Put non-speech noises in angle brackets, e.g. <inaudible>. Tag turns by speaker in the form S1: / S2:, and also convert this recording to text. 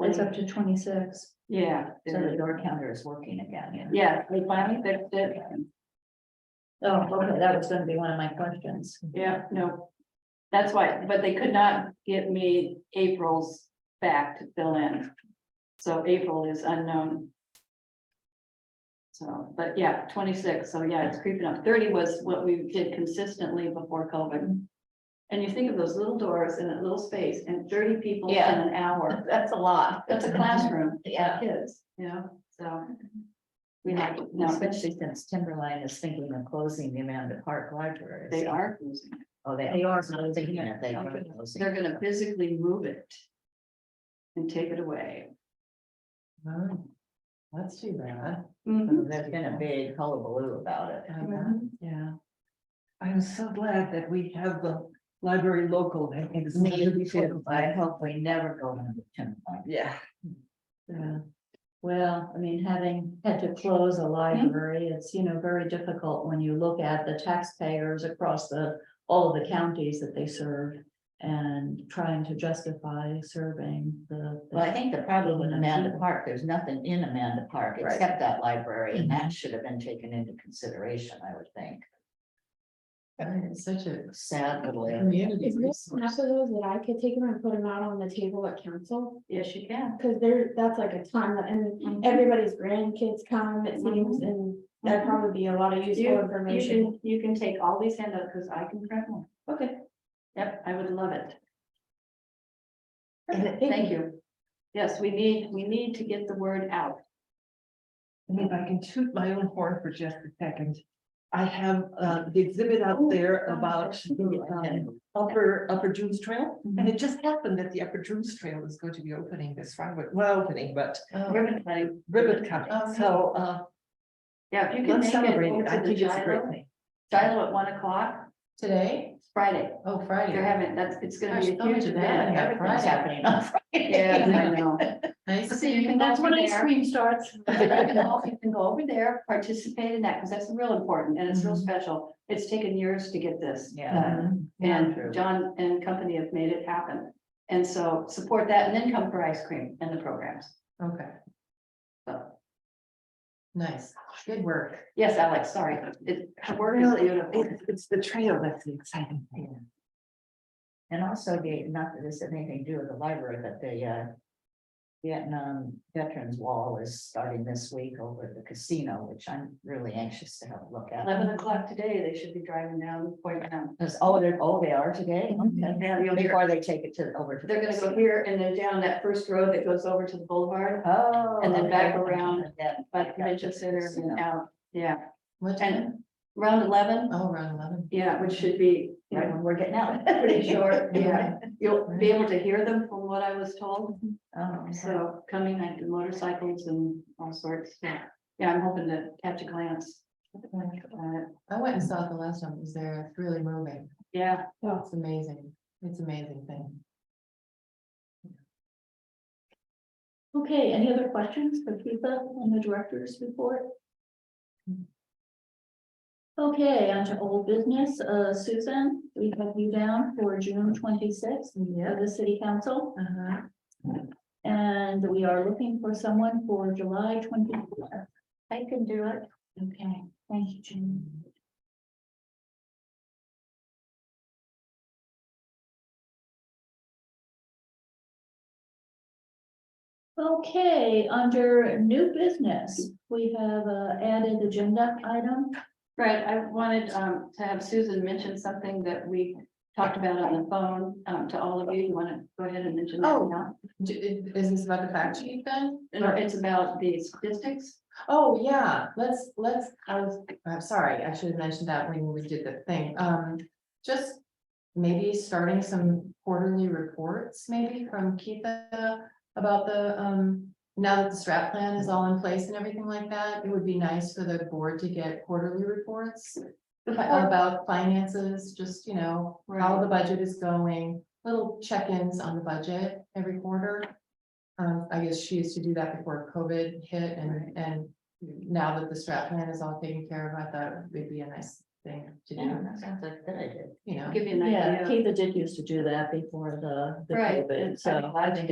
S1: It's up to twenty-six,
S2: Yeah,
S1: so the door counter is working again.
S2: yeah, they finally fixed it.
S1: Oh, okay, that was gonna be one of my questions.
S2: Yeah, no. That's why, but they could not get me April's back to fill in. So April is unknown. So, but yeah, twenty-six, so yeah, it's creeping up. Thirty was what we did consistently before COVID. And you think of those little doors in a little space and thirty people in
S3: Yeah.
S2: an hour.
S3: <laughs> That's a lot.
S2: That's a classroom,
S3: Yeah.
S2: kids, you know, so. We have, no, but
S1: Especially since Timberline is thinking of closing the Amanda Park Library.
S2: they are, losing it.
S1: Oh, they.
S3: They are.
S1: closing it, They are. closing it.
S2: they're gonna physically move it. And take it away.
S3: Oh, That's too bad.
S1: There's been a big hullabaloo about it.
S2: Mhm.
S3: Yeah. I'm so glad that we have the library local. that makes it
S1: Me
S3: really fun.
S1: too. I hope we never go into Timberline.
S3: Yeah.
S1: Yeah, well, I mean, having had to close a library, it's, you know, very difficult when you look at the taxpayers across the, all the counties that they serve. And trying to justify serving the.
S4: Well, I think the problem with Amanda Park, there's nothing in Amanda Park
S1: Right.
S4: except that library, and that should have been taken into consideration, I would think.
S3: It's such a
S4: Sad little area.
S3: community
S5: Is this half
S3: resource.
S5: of those that I could take them and put them out on the table at council?
S2: Yes, you can.
S5: Cause there, that's like a ton, and
S2: Mhm.
S5: everybody's grandkids come, it seems, and that'd probably be a lot of
S2: You-
S5: useful
S2: You
S5: information.
S2: can, you can take all these handouts, because I can print one. Okay. Yep, I would love it.
S5: Perfect,
S2: Thank you. Yes, we need, we need to get the word out.
S3: And if I can toot my own horn for just a second. I have uh the exhibit
S6: Oh,
S3: out there about the um upper upper Dunes Trail.
S6: Mm-hmm.
S3: And it just happened that the upper Dunes Trail is going to be opening this Friday, well, opening, but
S2: Ribbon cutting.
S3: ribbon
S6: Oh,
S3: cutting. So uh
S2: Yeah, if you can
S3: let's
S2: make it
S3: celebrate
S2: over
S3: it. I
S2: to the
S3: think it's a great
S2: Gilo,
S3: thing.
S2: Gilo at one o'clock,
S3: Today?
S2: it's Friday.
S3: Oh,
S2: They're
S3: Friday.
S2: having, that's, it's gonna
S3: Gosh,
S2: be a
S3: oh,
S2: huge
S3: today,
S2: event.
S3: yeah,
S4: It's
S2: Everything's
S3: Friday.
S4: happening on <laughs> Friday.
S2: Yeah, I know.
S3: Nice.
S2: So you can go
S1: That's
S2: over
S1: when ice
S2: there.
S1: cream starts.
S2: But <laughs> you can go- you can go over there, participate in that, because that's real important and it's real
S3: Mhm.
S2: special. It's taken years to get this.
S4: Yeah.
S3: uh,
S2: done.
S4: True.
S2: And John and company have made it happen. And so support that and then come for ice cream and the programs.
S3: Okay,
S2: So,
S3: nice. Good work.
S2: yes, Alex, sorry, it, her work is
S3: Well,
S2: beautiful.
S3: It's, it's the trail that's the exciting thing.
S4: And also the, not that this had anything to do with the library, but the uh. Vietnam Veterans Wall is starting this week over at the casino, which I'm really anxious to have a look at.
S2: Eleven o'clock today, they should be driving down Point Town.
S4: Because, oh, they're, oh, they are today, okay,
S2: Yeah, you'll hear-
S4: before they take it to, over to. the
S2: They're gonna go
S4: casino.
S2: here and then down that first road that goes over to the boulevard,
S4: Oh.
S2: and then back
S4: okay.
S2: around,
S4: And then
S2: by the
S4: back up
S2: convention
S4: to the
S2: center
S4: casino.
S2: and out, yeah.
S3: What time?
S2: And round eleven,
S3: Oh, around eleven.
S2: yeah, which should be, you
S4: Right
S2: know,
S4: when we're getting out.
S2: pretty short, <laughs> yeah. You'll be able to hear them from what I was told.
S4: <laughs> Oh, so,
S2: So coming like the motorcycles and all sorts, yeah, yeah, I'm hoping to catch a glance. Uh,
S6: I went and saw it the last time it was there. It's really moving.
S2: Yeah,
S6: It's amazing. It's amazing thing.
S1: Okay, any other questions for Kiva on the director's report? Okay, on to old business, uh, Susan, we have you down for June twenty-sixth of the city council.
S6: Uh-huh.
S1: And we are looking for someone for July twenty-fourth.
S4: I can do it.
S1: Okay, thank you, Jim. Okay, under new business, we have a added agenda item.
S2: right, I wanted um to have Susan mention something that we talked about on the phone um to all of you, you wanna go ahead and mention that
S6: Oh.
S2: now?
S6: J- i- Is this about the fact sheet then?
S2: No, it's about the statistics,
S6: Oh, yeah, let's, let's, I was, I'm sorry, I should have mentioned that when we did the thing. Um, just maybe starting some quarterly reports, maybe from Keitha about the, um, now that the strat plan is all in place and everything like that, it would be nice for the board to get quarterly reports fi- about finances, just, you know, how the budget is going, little check-ins on the budget every quarter. Um, I guess she used to do that before COVID hit and, and now that the strat plan is all taken care of, I thought it would be a nice thing to
S4: Yeah,
S6: do,
S4: that sounds like a good idea.
S6: you know.
S2: give you an idea.
S1: Yeah, Keitha did used to do that before the. the
S2: Right,
S1: COVID,
S2: and
S1: So I think